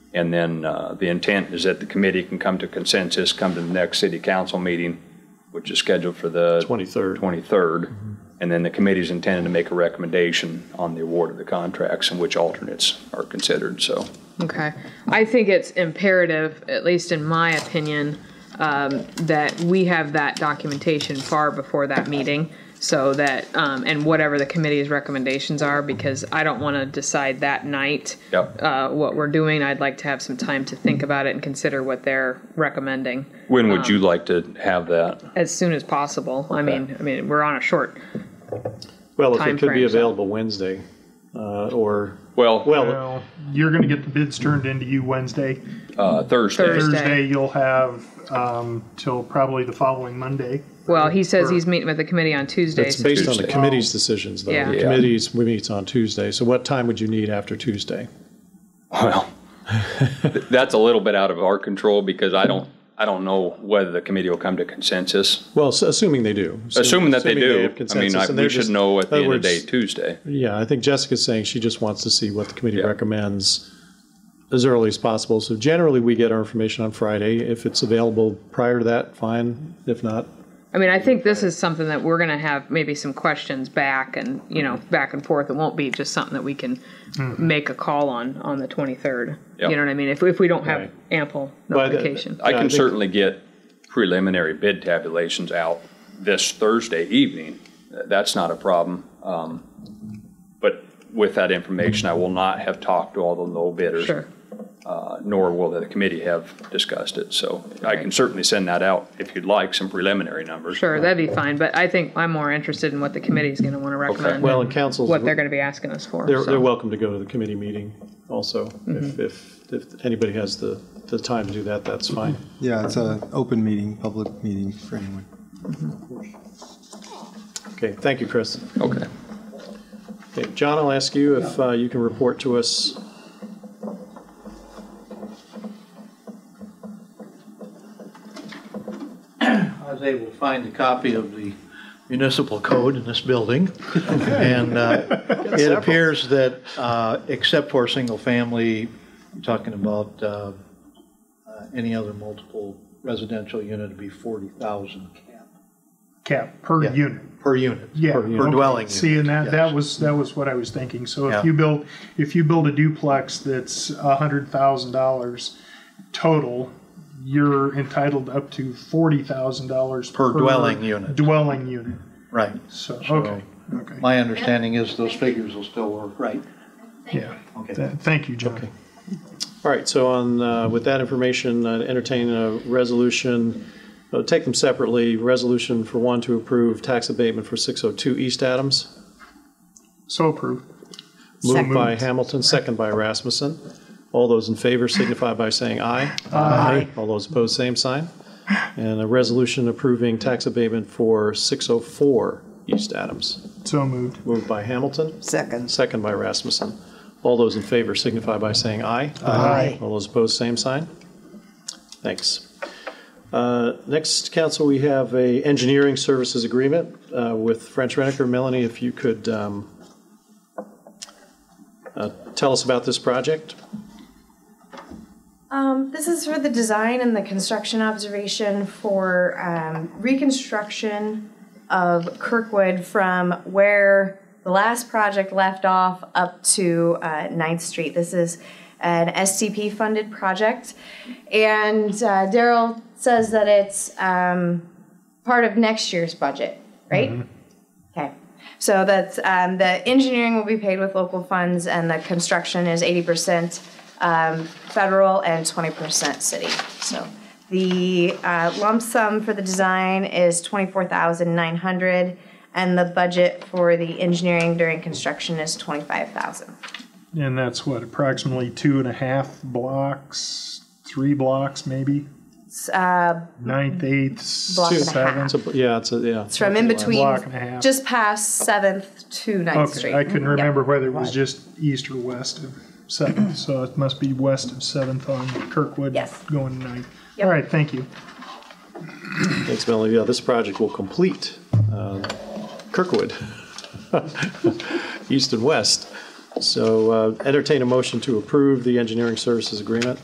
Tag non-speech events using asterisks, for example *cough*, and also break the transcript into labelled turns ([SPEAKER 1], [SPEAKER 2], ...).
[SPEAKER 1] And then uh, the intent is that the committee can come to consensus, come to the next city council meeting, which is scheduled for the
[SPEAKER 2] 23rd.
[SPEAKER 1] 23rd. And then the committee's intended to make a recommendation on the award of the contracts and which alternates are considered, so.
[SPEAKER 3] Okay. I think it's imperative, at least in my opinion, um, that we have that documentation far before that meeting so that, um, and whatever the committee's recommendations are, because I don't want to decide that night
[SPEAKER 1] Yep.
[SPEAKER 3] uh, what we're doing. I'd like to have some time to think about it and consider what they're recommending
[SPEAKER 1] When would you like to have that?
[SPEAKER 3] as soon as possible. I mean, I mean, we're on a short.
[SPEAKER 2] Well, if it could be
[SPEAKER 3] timeframes.
[SPEAKER 2] available Wednesday, uh, or,
[SPEAKER 1] Well,
[SPEAKER 2] well,
[SPEAKER 4] Well, you're going to get the bids turned into you Wednesday.
[SPEAKER 1] uh, Thursday.
[SPEAKER 3] Thursday.
[SPEAKER 4] Thursday, you'll have um, till probably the following Monday.
[SPEAKER 3] Well, he says
[SPEAKER 4] Or-
[SPEAKER 3] he's meeting with the committee on Tuesday.
[SPEAKER 2] it's based on the
[SPEAKER 1] Tuesday.
[SPEAKER 2] committee's decisions, though.
[SPEAKER 3] Yeah.
[SPEAKER 2] The
[SPEAKER 3] Yeah.
[SPEAKER 2] committee's, we meet on Tuesday, so what time would you need after Tuesday?
[SPEAKER 1] *laughs* Well, th- that's a little bit out of our control because I don't, I don't know whether the committee will come to consensus.
[SPEAKER 2] Well, s- assuming they do.
[SPEAKER 1] Assuming that they do,
[SPEAKER 2] have
[SPEAKER 1] I mean,
[SPEAKER 2] consensus,
[SPEAKER 1] I-
[SPEAKER 2] and they're
[SPEAKER 1] we should
[SPEAKER 2] just-
[SPEAKER 1] know at the
[SPEAKER 2] in
[SPEAKER 1] end
[SPEAKER 2] other
[SPEAKER 1] of the day,
[SPEAKER 2] words,
[SPEAKER 1] Tuesday.
[SPEAKER 2] Yeah, I think Jessica's saying she just wants to see what the committee
[SPEAKER 1] Yeah.
[SPEAKER 2] recommends as early as possible. So generally, we get our information on Friday. If it's available prior to that, fine. If not,
[SPEAKER 3] I mean, I think this is something that we're going to have maybe some questions back and, you know, back and forth. It won't be just something that we can
[SPEAKER 2] Mm-hmm.
[SPEAKER 3] make a call on on the 23rd.
[SPEAKER 1] Yeah. uh,
[SPEAKER 3] You know what I mean? If, if we don't have
[SPEAKER 2] Right.
[SPEAKER 3] ample
[SPEAKER 2] Well, I-
[SPEAKER 3] notification.
[SPEAKER 1] I
[SPEAKER 2] Yeah, I
[SPEAKER 1] can
[SPEAKER 2] think-
[SPEAKER 1] certainly get preliminary bid tabulations out this Thursday evening. Th- That's not a problem. Um, But with that information, I will not have talked to all the low bidders.
[SPEAKER 3] sure.
[SPEAKER 1] uh, Nor will the committee have discussed it. So I can certainly send that out if you'd like, some preliminary numbers.
[SPEAKER 3] Sure. That'd be fine. But I think I'm more interested in what the committee's going to want to recommend.
[SPEAKER 2] well,
[SPEAKER 3] and
[SPEAKER 2] and councils,
[SPEAKER 3] what they're
[SPEAKER 2] they're,
[SPEAKER 3] going to be asking us for. so.
[SPEAKER 2] they're welcome to go to the committee meeting also. If, if, if anybody has the, the time to do that, that's fine.
[SPEAKER 5] Yeah, it's an open meeting, public meeting for anyone.
[SPEAKER 2] Okay, thank you, Chris.
[SPEAKER 1] Okay.
[SPEAKER 2] Okay, John, I'll ask you if uh, you can report to us.
[SPEAKER 6] I was able to find a copy of the municipal code in this building. And uh, it appears that, uh, except for single-family, you're talking about uh, uh, any other multiple residential unit would be 40,000
[SPEAKER 4] Cap per
[SPEAKER 6] Yeah.
[SPEAKER 4] unit.
[SPEAKER 6] per unit.
[SPEAKER 4] Yeah,
[SPEAKER 6] Per
[SPEAKER 4] okay.
[SPEAKER 6] dwelling unit.
[SPEAKER 4] See, and that,
[SPEAKER 6] yes.
[SPEAKER 4] that was, that was what I was thinking. So
[SPEAKER 6] Yeah.
[SPEAKER 4] if you build, if you build a duplex that's a hundred thousand dollars total, you're entitled up to forty thousand dollars.
[SPEAKER 6] Per dwelling unit.
[SPEAKER 4] Dwelling unit.
[SPEAKER 6] Right.
[SPEAKER 4] So, okay, okay.
[SPEAKER 6] My understanding is those figures will still work. Right.
[SPEAKER 4] Yeah.
[SPEAKER 6] Okay.
[SPEAKER 4] Th- Thank you, John.
[SPEAKER 2] All right, so on, uh, with that information, I'd entertain a resolution, uh, take them separately. Resolution for one to approve tax abatement for 602 East Adams.
[SPEAKER 4] So approved.
[SPEAKER 2] Moved by Hamilton, second by Rasmussen. All those in favor signify by saying aye. Aye. All those opposed, same sign. And a resolution approving tax abatement for 604 East Adams.
[SPEAKER 4] So moved.
[SPEAKER 2] Moved by Hamilton,
[SPEAKER 7] Second.
[SPEAKER 2] second by Rasmussen. All those in favor signify by saying aye. Aye. All those opposed, same sign. Thanks. Uh, Next, council, we have a engineering services agreement uh, with French Renaker. Melanie, if you could um, uh, tell us about this project.
[SPEAKER 8] Um, this is for the design and the construction observation for um, reconstruction of Kirkwood from where the last project left off up to uh, 9th Street. This is an SCP funded project. And uh, Daryl says that it's um, part of next year's budget, right? Okay. So that's um, the engineering will be paid with local funds, and the construction is 80% um, federal and 20% city. So the uh, lump sum for the design is 24,900, and the budget for the engineering during construction is 25,000.
[SPEAKER 4] And that's what, approximately two and a half blocks, three blocks maybe?
[SPEAKER 8] It's, uh,
[SPEAKER 4] Ninth, eighth,
[SPEAKER 8] Block and a
[SPEAKER 4] seventh.
[SPEAKER 8] half.
[SPEAKER 2] It's a- Yeah, it's a, yeah.
[SPEAKER 8] it's from in between,
[SPEAKER 4] Block and a half.
[SPEAKER 8] just past 7th to 9th Street.
[SPEAKER 4] Okay, I couldn't remember whether it was
[SPEAKER 7] Right.
[SPEAKER 4] just east or west of seventh, so it must be west of seventh on Kirkwood.
[SPEAKER 8] Yes.
[SPEAKER 4] Going to ninth.
[SPEAKER 8] Yep.
[SPEAKER 4] All right, thank you.
[SPEAKER 2] Thanks, Melanie. Yeah, this project will complete um, Kirkwood, *laughs* east and west. So uh, entertain a motion to approve the engineering services agreement.